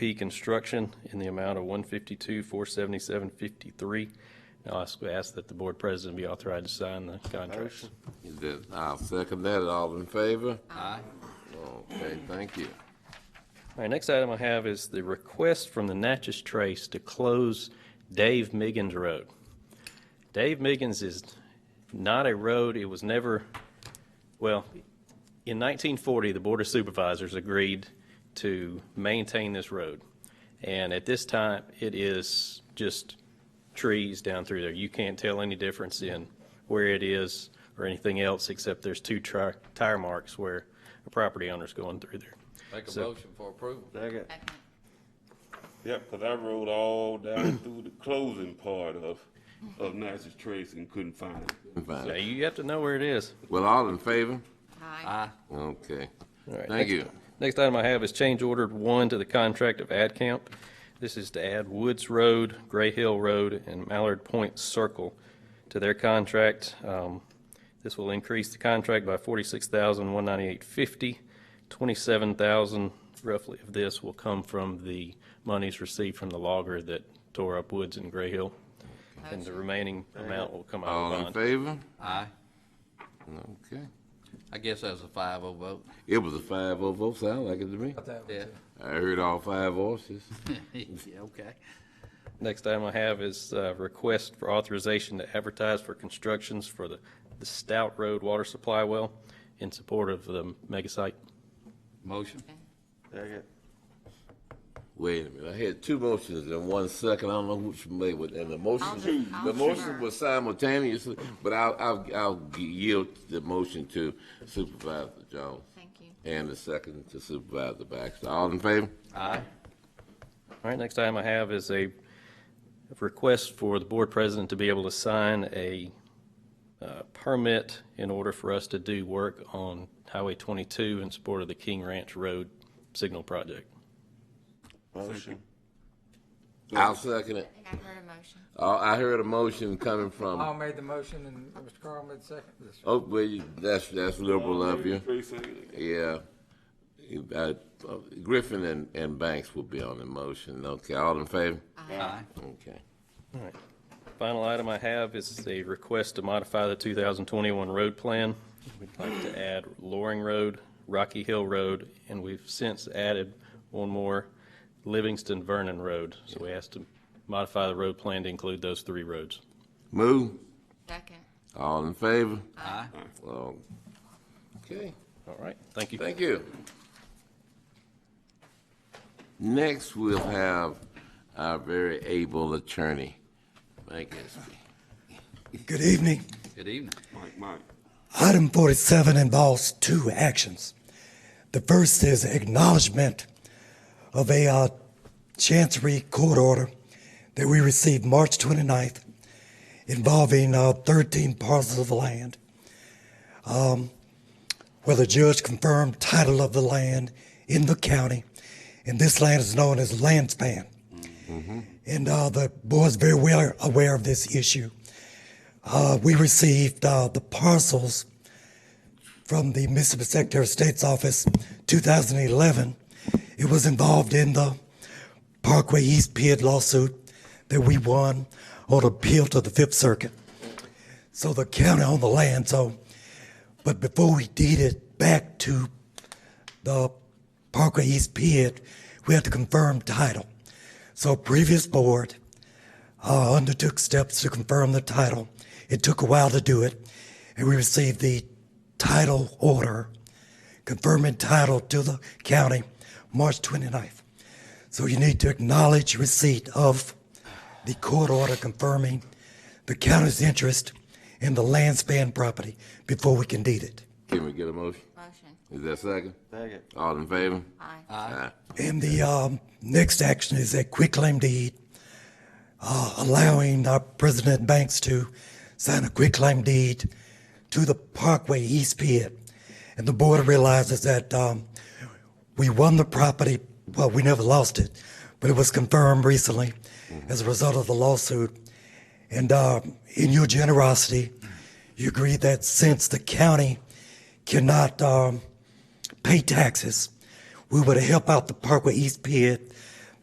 P Construction in the amount of one fifty-two, four seventy-seven, fifty-three. Now, I s- ask that the board president be authorized to sign the contracts. Is that, I'll second that, all in favor? Aye. Okay, thank you. All right, next item I have is the request from the Natchez Trace to close Dave Miggins Road. Dave Miggins is not a road, it was never, well, in 1940, the Board of Supervisors agreed to maintain this road. And at this time, it is just trees down through there. You can't tell any difference in where it is or anything else, except there's two tri- tire marks where a property owner's going through there. Make a So- motion for approval. Yep, because I rode all down through the closing part of, of Natchez Trace and couldn't find it. Now, Fine. you have to know where it is. Well, all in favor? Aye. Okay, All right, thank next- you. Next item I have is change order one to the contract of AdCamp. This is to add Woods Road, Gray Hill Road, and Mallard Point Circle to their contract. Um, This will increase the contract by forty-six thousand, one ninety-eight fifty. Twenty-seven thousand roughly of this will come from the monies received from the logger that tore up Woods and Gray Hill. And the remaining amount will come out All of in bond. favor? Aye. Okay. I guess that's a five oh vote. It was a five oh vote, sound like it to me. Yeah. I heard all five voices. Yeah, okay. Next item I have is uh, request for authorization to advertise for constructions for the the Stout Road Water Supply Well in support of the mega site. Motion. Wait a minute, I had two motions in one second, I don't know which way, with- and the motion, I'll the motion defer. was simultaneous, but I'll, I'll, I'll yield the motion to Supervisor Jones Thank you. and the second to Supervisor Baxter. All in favor? Aye. All right, next item I have is a request for the board president to be able to sign a uh, permit in order for us to do work on Highway 22 in support of the King Ranch Road Signal Project. I'll second it. I think I've heard a motion. Uh, I heard a motion coming from, Oh. Paul made the motion and Mr. Carl made the second. This- oh, well, you- that's, that's liberal of you, Trace second. yeah. You- uh, Griffin and, and Banks will be on the motion, okay, all in favor? Aye. Okay. Final item I have is a request to modify the 2021 road plan. We'd like to add Loring Road, Rocky Hill Road, and we've since added one more, Livingston Vernon Road. So we asked to modify the road plan to include those three roads. Move, Second. all in favor? Aye. Oh, Okay, All right, thank you. thank you. Next, we'll have our very able attorney, Mike Espy. Good evening. Good evening. Mike, Mike. Item 47 involves two actions. The first is acknowledgement of a uh, Chancery Court order that we received March 29th involving uh, 13 parcels of land, um, where the judge confirmed title of the land in the county, and this land is known as land span. And uh, the board's very well aware of this issue. Uh, we received uh, the parcels from the Mississippi Secretary of State's office 2011. It was involved in the Parkway East Pied lawsuit that we won on appeal to the Fifth Circuit. So the county owned the land. So, but before we deed it back to the Parkway East Pied, we had to confirm title. So previous board uh, undertook steps to confirm the title. It took a while to do it, and we received the title order confirming title to the county March 29th. So you need to acknowledge receipt of the court order confirming the county's interest in the land span property before we can deed it. Can we get a motion? Motion. Is that second? Second. All in favor? Aye. Aye. And the um, next action is a quitclaim deed, uh, allowing our President Banks to sign a quitclaim deed to the Parkway East Pit. And the board realizes that um, we won the property, well, we never lost it, but it was confirmed recently as a result of the lawsuit. And uh, in your generosity, you agreed that since the county cannot um, pay taxes. We would help out the Parkway East Pit